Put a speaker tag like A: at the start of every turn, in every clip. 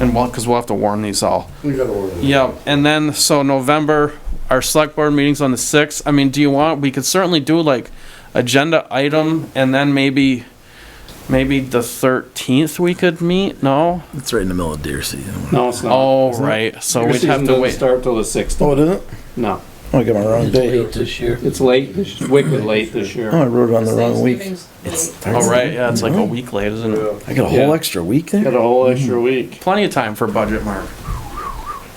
A: and what, because we'll have to warn these all.
B: We gotta order. it.
A: Yep, and then, so November, our select board meeting's on the sixth, I mean, do you want, we could certainly do like agenda item, and then maybe, maybe the thirteenth we could meet, no?
C: It's right in the middle of deer season.
D: No, it's not.
A: Oh, right, so
D: Your
A: we'd
D: season
A: have to
D: doesn't
A: wait.
D: Start till the sixth.
B: Oh, it isn't? Oh,
D: No,
B: I got my wrong
C: It's
B: day.
C: late this year.
D: it's late. It's wicked late this
B: Oh,
D: year.
B: I wrote it on the wrong week.
E: Thanksgiving's late.
A: Oh, right, yeah, it's like a week late, isn't it?
B: I got a
D: Yeah.
B: whole extra week
D: Got
B: there?
D: a whole extra week.
A: Plenty of time for budget, Mark.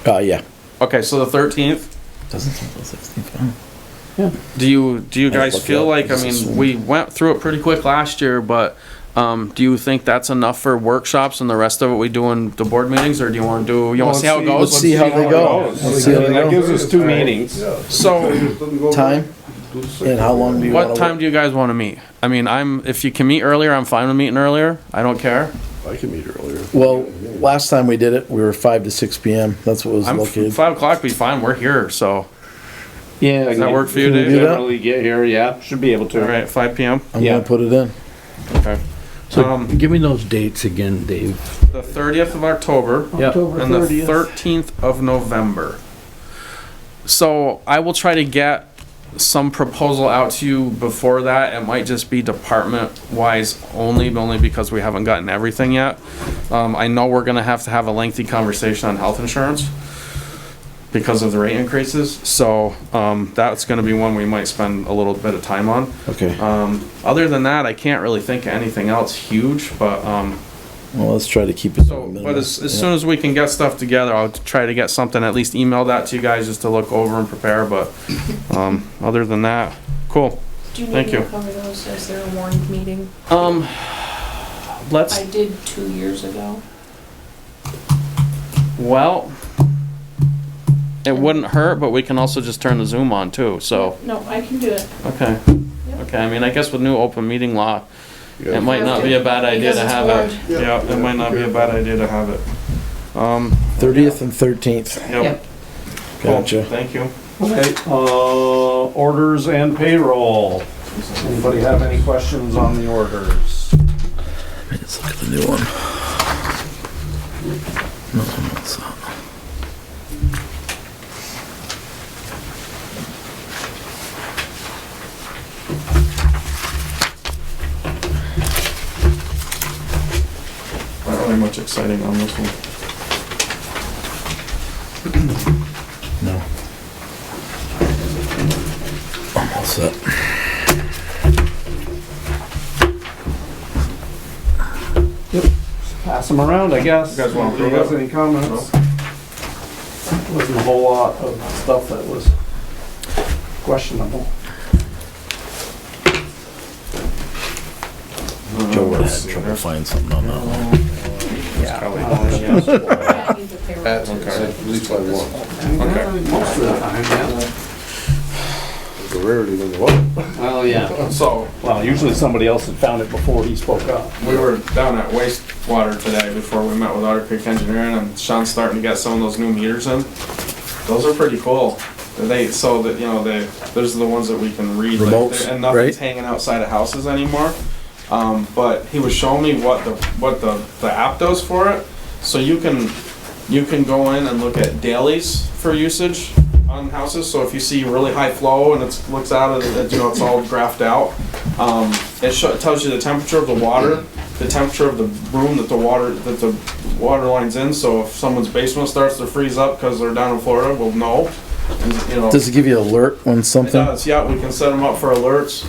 B: Uh, yeah.
A: Okay, so the thirteenth,
C: Doesn't sound the sixteenth.
A: do you, do you
B: I'll
A: guys
B: look it
A: feel
B: up.
A: like, I
B: This is-
A: mean, we went through it pretty quick last year, but, um, do you think that's enough for workshops and the rest of it we do in the board meetings, or do you wanna do, you wanna see how it
B: Let's
A: goes?
B: see how they go.
D: it goes.
B: Let's see how
D: I mean,
B: they
D: That
B: go.
D: gives us two meetings.
A: So,
B: Time and how long do you want
A: what time do you guys wanna meet? I mean, I'm, if you can meet earlier, I'm fine with meeting earlier, I don't care.
F: I can meet earlier.
B: Well, last time we did it, we were five to six PM. That's what was
A: I'm,
B: located.
A: five o'clock be fine, we're here, so,
D: Yeah. Does
A: that work for you,
B: Can we
A: Dave?
B: do that?
D: Generally get here, yeah, should be able to.
A: alright, five PM,
B: I'm
D: yeah.
B: gonna put it in.
A: okay. Um,
C: Give me those dates again, Dave.
A: the thirtieth of October. and the thirteenth of November. So I will try to get some proposal out to you before that. It might just be department wise only, but only because we haven't gotten everything yet. Um, I know we're gonna have to have a lengthy conversation on health insurance because of the rate increases, so, um, that's gonna be one we might spend a little bit of time on.
B: Okay.
A: Um, other than that, I can't really think of anything else huge, but, um,
B: Well, let's try to keep it. to a
A: so, but
B: minimum.
A: as, as
B: Yeah.
A: soon as we can get stuff together, I'll try to get something, at least emailed out to you guys just to look over and prepare, but, um, other than that, cool.
E: Do you
A: Thank
E: need me to
A: you.
E: cover those? Is there a warned meeting?
A: Um, let's,
E: I did two years ago.
A: well, it wouldn't hurt, but we can also just turn the Zoom on too, so,
E: No, I can do it.
A: okay. Okay, I mean, I guess with new open meeting law,
F: Yeah.
A: it might not be a bad idea to
E: Because it's
A: have
E: warned.
A: it. Yeah, it might not be a bad idea to have it. Um,
B: Thirtieth and thirteenth.
A: yep. Cool,
B: Gotcha.
A: Thank you.
D: Okay, uh, orders and payroll. Anybody have any questions on the orders?
C: Let's look at the new one. No, no, it's not.
A: Not really much exciting on this one.
B: No.
C: I'm all set.
D: Pass them around, I guess.
A: You guys wanna
D: Anybody
A: approve
D: has any comments? Wasn't a whole lot of stuff that was questionable.
A: Oh,
C: Joe would have had trouble finding something on that one.
D: Yeah.
E: I need the payroll.
F: At at least by one.
D: Most of the time, yeah.
F: It's a rarity than the one.
D: Well, Oh, yeah.
A: So,
D: Well, usually somebody else had found it before he spoke up.
A: we were down at wastewater today before we met with Otter Creek Engineering, and Sean's starting to get some of those new meters in. Those are pretty cool. They, so that, you know, they, those are the ones that we can read. like,
B: Remotes,
A: they're- And
B: right?
A: nothing's hanging outside of houses anymore. Um, but he was showing me what the, what the, the app does for it. So you can, you can go in and look at dailies for usage on houses. So if you see really high flow and it's, looks out of, the- you know, it's all graphed out. Um, it sho- it tells you the temperature of the water, the temperature of the room that the water, that the water line's in. So if someone's basement starts to freeze up because they're down in Florida, we'll know. And, you know,
B: Does it give you alert when
A: it
B: something?
A: does, yeah, we can set them up for alerts.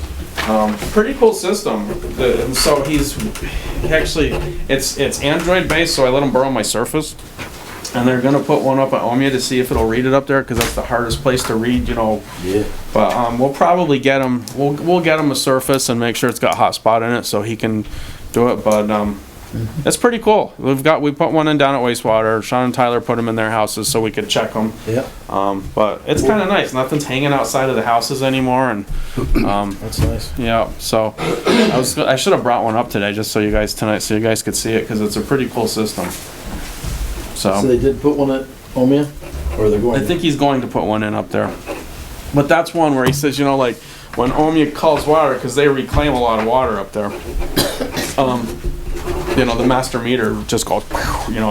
A: Um, pretty cool system. The, and so he's he actually, it's it's Android based, so I let him borrow my Surface. And they're gonna put one up at Omea to see if it'll read it up there, because that's the hardest place to read, you know.
B: Yeah.
A: But um, we'll probably get him, we'll, we'll get him a Surface and make sure it's got hotspot in it, so he can do it, but, um, it's pretty cool. We've got, we put one in down at wastewater. Sean and Tyler put them in their houses so we could check them.
B: Yeah,
A: Um, but it's kind of nice. Nothing's hanging outside of the houses anymore, and um,
B: that's nice.
A: yeah. So I was I should have brought one up today just so you guys tonight so you guys could see it because it's a pretty cool system.
B: So
A: So
B: they did put one at Omea, or they're
A: Um, I
B: going?
A: think he's going to put one in up there. But that's one where he says, you know, like when Omia calls water because they reclaim a lot of water up there. Um, you know, the master meter just goes, you know,